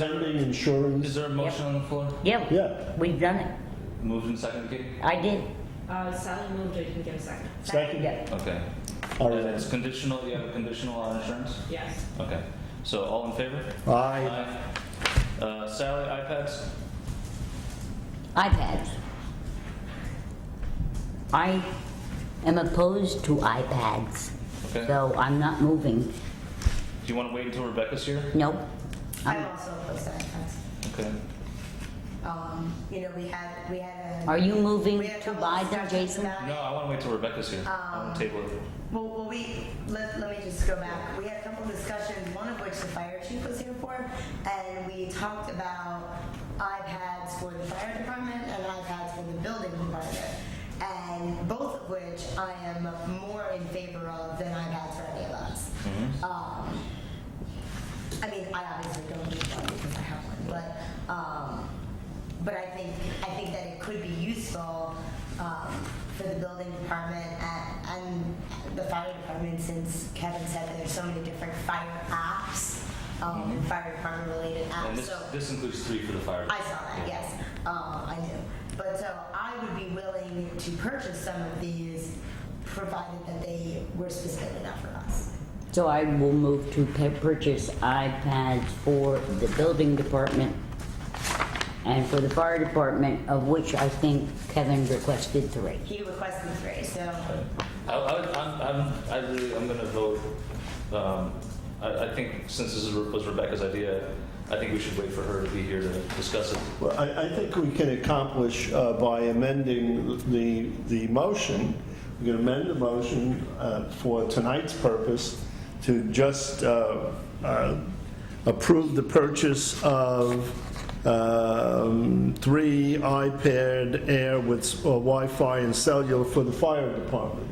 Lending, insurance. Is there a motion on the floor? Yeah. Yeah. We've done it. Moved and seconded, Katie? I did. Uh, Sally moved it, you can give a second. Second? Yeah. Okay. All And right. It's conditional, you have a conditional on insurance? Yes. Okay. So all in favor? Aye. Uh, Sally, iPads? iPads. I am opposed to iPads. Okay. So I'm not moving. Do you want to wait until Rebecca's here? Nope. I'm also opposed to iPads. Okay. Um, you know, we had, we had a. Are you moving we had a to couple buy them, discussions Jason? about it. No, I want to wait till Rebecca's here. Um, I want to table it. Well, well, we, let, let me just go back. We had a couple discussions, one of which the fire chief was here for, and we talked about iPads for the fire department and iPads for the building department. And both of which I am more in favor of than iPads for any of us. Um, I mean, I obviously don't need one because I have one, but, um, but I think, I think that it could be useful, um, for the building department and, and the fire department, since Kevin said that there's so many different fire apps, um, and fire department related Mm-hmm. And apps, this, uh, so. this includes three for the fire. I saw that, yes, um, I knew. But so I would be willing to purchase some of these, provided that they were specific enough for us. So I will move to pa- purchase iPads for the building department and for the fire department, of which I think Kevin requested three. He requested three, so. Okay. I, I, would- I'm, I'm, I really, I'm gonna vote, um, I, I think since this is- was Rebecca's idea, I think we should wait for her to be here to discuss it. Well, I, I think we can accomplish uh, by amending the, the motion. We can amend the motion uh, for tonight's purpose to just uh, uh, approve the purchase of um, three iPad Air with s- uh, Wi-Fi and cellular for the fire department,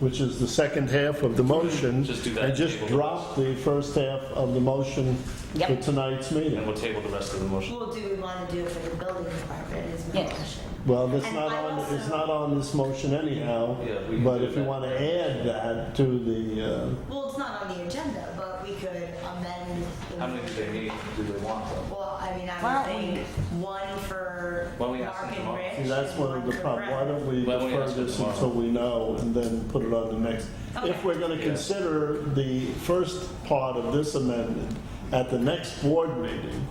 which is the second half of the motion. Just do that And just table. drop the first half of the motion for Yep. tonight's meeting. And we'll table the rest of the motion. Well, do we want to do it for the building department is my Yes. question. Well, that's And not I on, also- it's not on this motion anyhow, Yeah, we can but do if you that. want to add that to the, uh, Well, it's not on the agenda, but we could amend. the- How many do they need, do they want though? Well, I mean, Why I don't would think one for Why don't we ask Mark them and tomorrow? Rich. see, that's and one of the for problems. Why Brett. don't we Why don't we defer ask it this tomorrow? until we know and then put it on the next? If we're going to Yeah. consider the first part of this amendment at the next board meeting,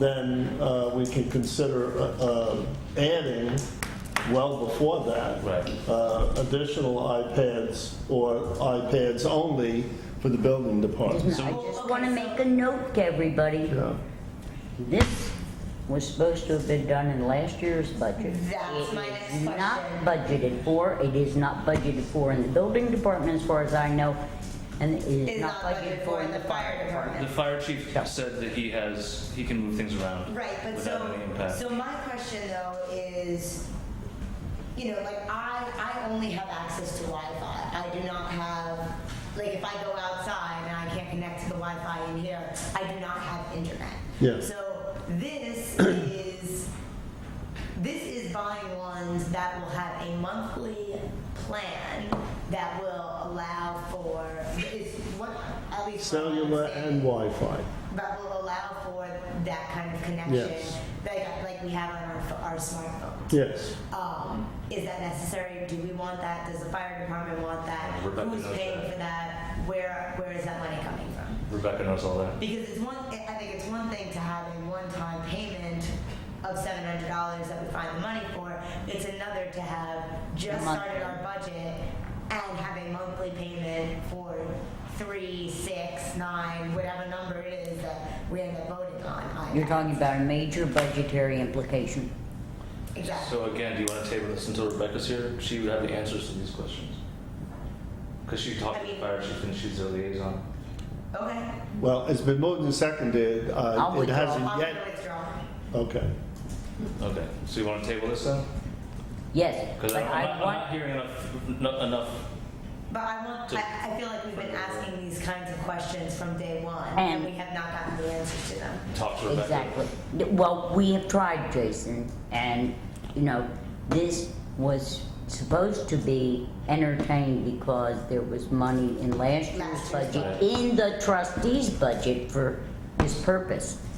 then uh, we can consider uh, uh, adding, well before that, Right. uh, additional iPads or iPads only for the building department. I just wanna make a note to everybody. Yeah. This was supposed to have been done in last year's budget. That's my next It is not question. budgeted for, it is not budgeted for in the building department as far as I know, and it is Is not budgeted for in the fire department. The fire chief said that he has, he can move things around. Right, but Without any so, impact. so my question though is, you know, like I, I only have access to Wi-Fi. I do not have, like if I go outside and I can't connect to the Wi-Fi in here, I do not have internet. Yeah. So this is, this is buying ones that will have a monthly plan that will allow for, is what, at least. from my Cellular and understanding, Wi-Fi. that will allow for that kind of connection, Yes. like, like we have on our, pho- our smartphone. Yes. Um, is that necessary? Do we want that? Does the fire department want that? Rebecca Who's knows paying that. for that? Where, where is that money coming from? Rebecca knows all that. Because it's one, I I think it's one thing to have a one-time payment of seven hundred dollars that we find the money for. It's another to have just Monthly. started our budget and have a monthly payment for three, six, nine, whatever number it is that we end up voting on. You're iPads. talking about a major budgetary implication. Exactly. So again, do you want to table this until Rebecca's here? She would have the answers to these questions. Because she talked to the fire chief and she's their liaison. Okay. Well, it's been moved and seconded. Uh, I'll It hasn't I'm gonna yet, withdraw. okay. Okay, so you want to table this then? Yes, Because but I'm not, I I'm not want, hearing enough, no- enough, But I want, I, I feel like we've been asking these kinds of questions from day one and And- we have not gotten the answers to them. talk to Rebecca. exactly. Well, we have tried, Jason, and, you know, this was supposed to be entertained because there was money in last year's Last year's budget, budget. in the trustees' budget for his purpose.